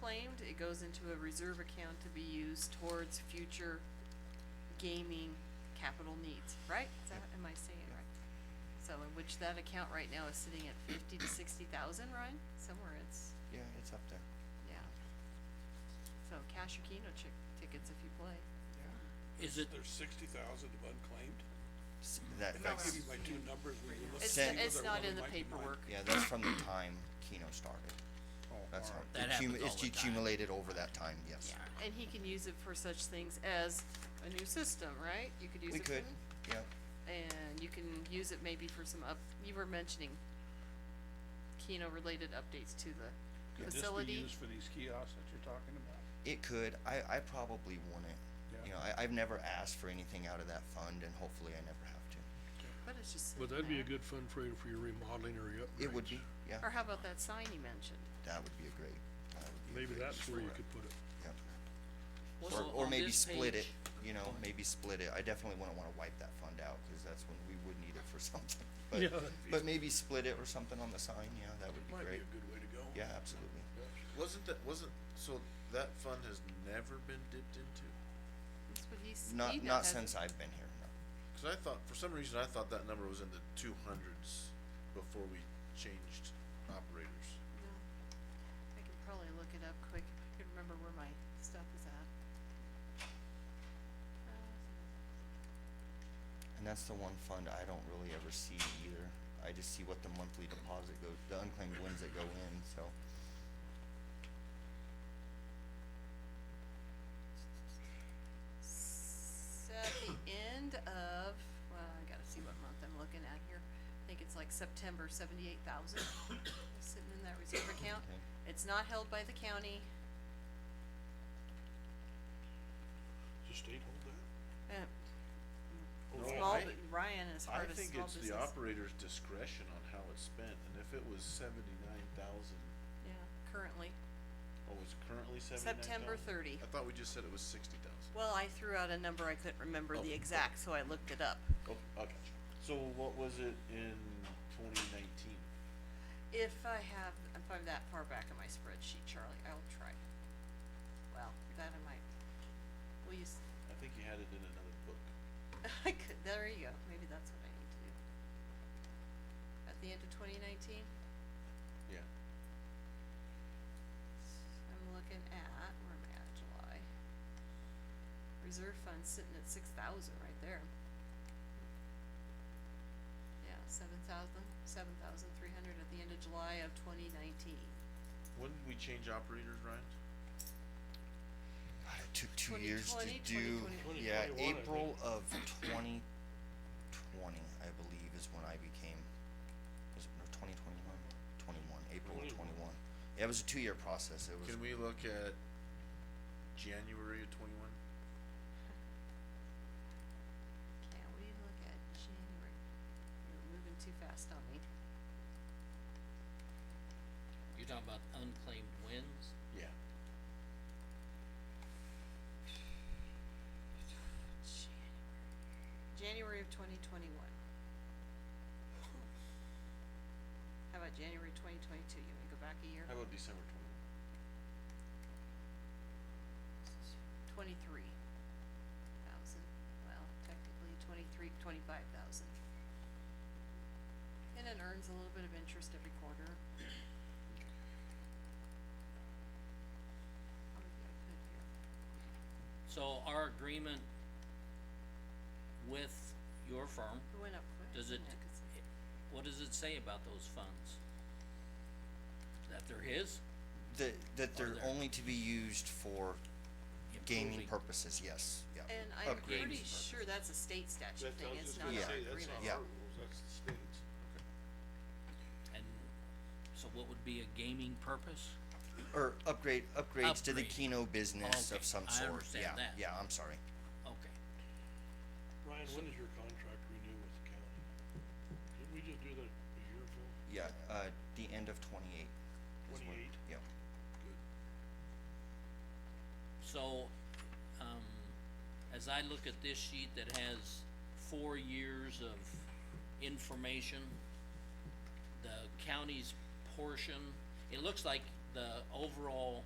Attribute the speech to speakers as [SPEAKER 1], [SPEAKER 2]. [SPEAKER 1] claimed, it goes into a reserve account to be used towards future gaming capital needs, right? Is that, am I saying it right? So in which that account right now is sitting at fifty to sixty thousand, Ryan, somewhere it's,
[SPEAKER 2] Yeah, it's up there.
[SPEAKER 1] yeah. So cash or Keno chick, tickets if you play.
[SPEAKER 3] Is it,
[SPEAKER 4] There's sixty thousand of unclaimed?
[SPEAKER 2] S- That,
[SPEAKER 4] And I'll
[SPEAKER 2] that's,
[SPEAKER 4] give you my two numbers when you look.
[SPEAKER 1] It's,
[SPEAKER 2] Send-
[SPEAKER 1] it's not in the paperwork.
[SPEAKER 2] yeah, that's from the time Keno started.
[SPEAKER 5] Oh,
[SPEAKER 2] That's how,
[SPEAKER 3] That
[SPEAKER 2] it cum-
[SPEAKER 3] happens all
[SPEAKER 2] it's
[SPEAKER 3] the time.
[SPEAKER 2] accumulated over that time, yes.
[SPEAKER 3] yeah,
[SPEAKER 1] And he can use it for such things as a new system, right? You could use
[SPEAKER 2] We
[SPEAKER 1] it for.
[SPEAKER 2] could, yeah,
[SPEAKER 1] And you can use it maybe for some up, you were mentioning Keno related updates to the
[SPEAKER 5] Could this be
[SPEAKER 1] facility.
[SPEAKER 5] used for these kiosks that you're talking about?
[SPEAKER 2] it could, I, I probably wouldn't.
[SPEAKER 5] Yeah.
[SPEAKER 2] You know, I, I've never asked for anything out of that fund and hopefully I never have to.
[SPEAKER 1] But it's just.
[SPEAKER 6] Would
[SPEAKER 1] sitting
[SPEAKER 6] that be a
[SPEAKER 1] there.
[SPEAKER 6] good fund for you for your remodeling or your upgrades?
[SPEAKER 2] It would be, yeah,
[SPEAKER 1] Or how about that sign he mentioned?
[SPEAKER 2] that would be a great, that would be a
[SPEAKER 6] Maybe
[SPEAKER 2] great use
[SPEAKER 6] that's where
[SPEAKER 2] for it,
[SPEAKER 6] you could put it.
[SPEAKER 2] yeah.
[SPEAKER 3] was
[SPEAKER 2] Or, or
[SPEAKER 3] on- on
[SPEAKER 2] maybe
[SPEAKER 3] this
[SPEAKER 2] split it,
[SPEAKER 3] page-
[SPEAKER 2] you know, maybe split it, I definitely wouldn't wanna wipe that fund out, cause that's when we would need it for something.
[SPEAKER 6] Yeah,
[SPEAKER 2] But,
[SPEAKER 6] that'd be-
[SPEAKER 2] but maybe split it or something on the sign, yeah, that would be
[SPEAKER 3] Might be a
[SPEAKER 2] great,
[SPEAKER 3] good way to go.
[SPEAKER 2] yeah, absolutely.
[SPEAKER 7] Wasn't that, wasn't, so that fund has never been dipped into?
[SPEAKER 1] That's what he's. he
[SPEAKER 2] Not,
[SPEAKER 1] kno-
[SPEAKER 2] not
[SPEAKER 1] has-
[SPEAKER 2] since I've been here, no.
[SPEAKER 7] Cause I thought, for some reason, I thought that number was in the two hundreds before we changed operators.
[SPEAKER 1] no. I can probably look it up quick. I can remember where my stuff is at. Uh,
[SPEAKER 2] And that's the one fund I don't really ever see either. I just see what the monthly deposit goes, the unclaimed wins that go in, so.
[SPEAKER 1] s- At the end of, well, I gotta see what month I'm looking at here. I think it's like September, seventy-eight thousand sitting in that reserve account.
[SPEAKER 2] Okay.
[SPEAKER 1] It's not held by the county.
[SPEAKER 3] Does the state hold
[SPEAKER 1] Uh,
[SPEAKER 7] No,
[SPEAKER 1] Small,
[SPEAKER 7] I-
[SPEAKER 1] bu- Ryan is
[SPEAKER 7] I
[SPEAKER 1] hard as
[SPEAKER 7] think
[SPEAKER 1] small
[SPEAKER 7] it's
[SPEAKER 1] business.
[SPEAKER 7] the operator's discretion on how it's spent, and if it was seventy-nine thousand,
[SPEAKER 1] Yeah, currently.
[SPEAKER 7] oh, it's currently seventy-nine thousand?
[SPEAKER 1] September thirty.
[SPEAKER 7] I thought we just said it was sixty thousand.
[SPEAKER 1] Well, I threw out a number, I couldn't remember
[SPEAKER 7] Oh,
[SPEAKER 1] the
[SPEAKER 7] okay.
[SPEAKER 1] exact, so I looked it up.
[SPEAKER 7] Oh, okay. So what was it in twenty nineteen?
[SPEAKER 1] If I have, if I'm that far back in my spreadsheet, Charlie, I'll try. Well, that I might, will you, s-
[SPEAKER 7] I think you had it in another book.
[SPEAKER 1] I could, there you go, maybe that's what I need to do. At the end of twenty nineteen,
[SPEAKER 7] Yeah.
[SPEAKER 1] I'm looking at, where am I at, July? Reserve fund sitting at six thousand right there. Yeah, seven thousand, seven thousand three hundred at the end of July of twenty nineteen.
[SPEAKER 7] When did we change operators, Ryan?
[SPEAKER 2] God, it took two
[SPEAKER 1] 2020,
[SPEAKER 2] years to
[SPEAKER 1] 2021.
[SPEAKER 2] do, yeah,
[SPEAKER 3] 2021, I
[SPEAKER 2] April of twenty twenty, I believe, is when I became, was it, no, twenty twenty-one? Twenty-one, April of
[SPEAKER 3] 21.
[SPEAKER 2] twenty-one. Yeah, it was a two-year process, it was,
[SPEAKER 7] Can we look at January of twenty-one?
[SPEAKER 1] Now, we look at January, you're moving too fast on me.
[SPEAKER 3] You're talking about unclaimed wins?
[SPEAKER 7] Yeah.
[SPEAKER 1] January of twenty twenty-one. How about January twenty twenty-two, you wanna go back a year?
[SPEAKER 7] How about December twenty-one?
[SPEAKER 1] Twenty-three thousand, well, technically twenty-three, twenty-five thousand. And it earns a little bit of interest every quarter. How many did I put here?
[SPEAKER 3] So our agreement with your firm,
[SPEAKER 1] It went up quick.
[SPEAKER 3] Does
[SPEAKER 1] didn't
[SPEAKER 3] it-
[SPEAKER 1] Cause
[SPEAKER 3] what does it say about those funds? That they're his?
[SPEAKER 2] that, that they're
[SPEAKER 3] there.
[SPEAKER 2] only to be used for gaming
[SPEAKER 3] Improving.
[SPEAKER 2] purposes, yes, yeah.
[SPEAKER 1] And I'm pretty
[SPEAKER 2] Upgrades.
[SPEAKER 1] sure that's a state statute thing, it's not
[SPEAKER 2] gonna
[SPEAKER 1] an
[SPEAKER 2] say,
[SPEAKER 1] agreement.
[SPEAKER 2] Yeah.
[SPEAKER 5] rules, that's the state's.
[SPEAKER 3] And so what would be a gaming purpose?
[SPEAKER 2] Or upgrade, upgrades to the
[SPEAKER 3] Upgrade.
[SPEAKER 2] Keno
[SPEAKER 3] Oh,
[SPEAKER 2] business
[SPEAKER 3] Okay,
[SPEAKER 2] of some
[SPEAKER 3] I
[SPEAKER 2] sort,
[SPEAKER 3] understand
[SPEAKER 2] yeah,
[SPEAKER 3] that.
[SPEAKER 2] yeah, I'm sorry.
[SPEAKER 3] Okay,
[SPEAKER 6] Ryan, when is your contract renewed with the county? Did we just do that a year ago?
[SPEAKER 2] Yeah, uh, the end of twenty-eight. is when-
[SPEAKER 6] 28?
[SPEAKER 2] Yeah,
[SPEAKER 3] so, um, as I look at this sheet that has four years of information, the county's portion, it looks like the overall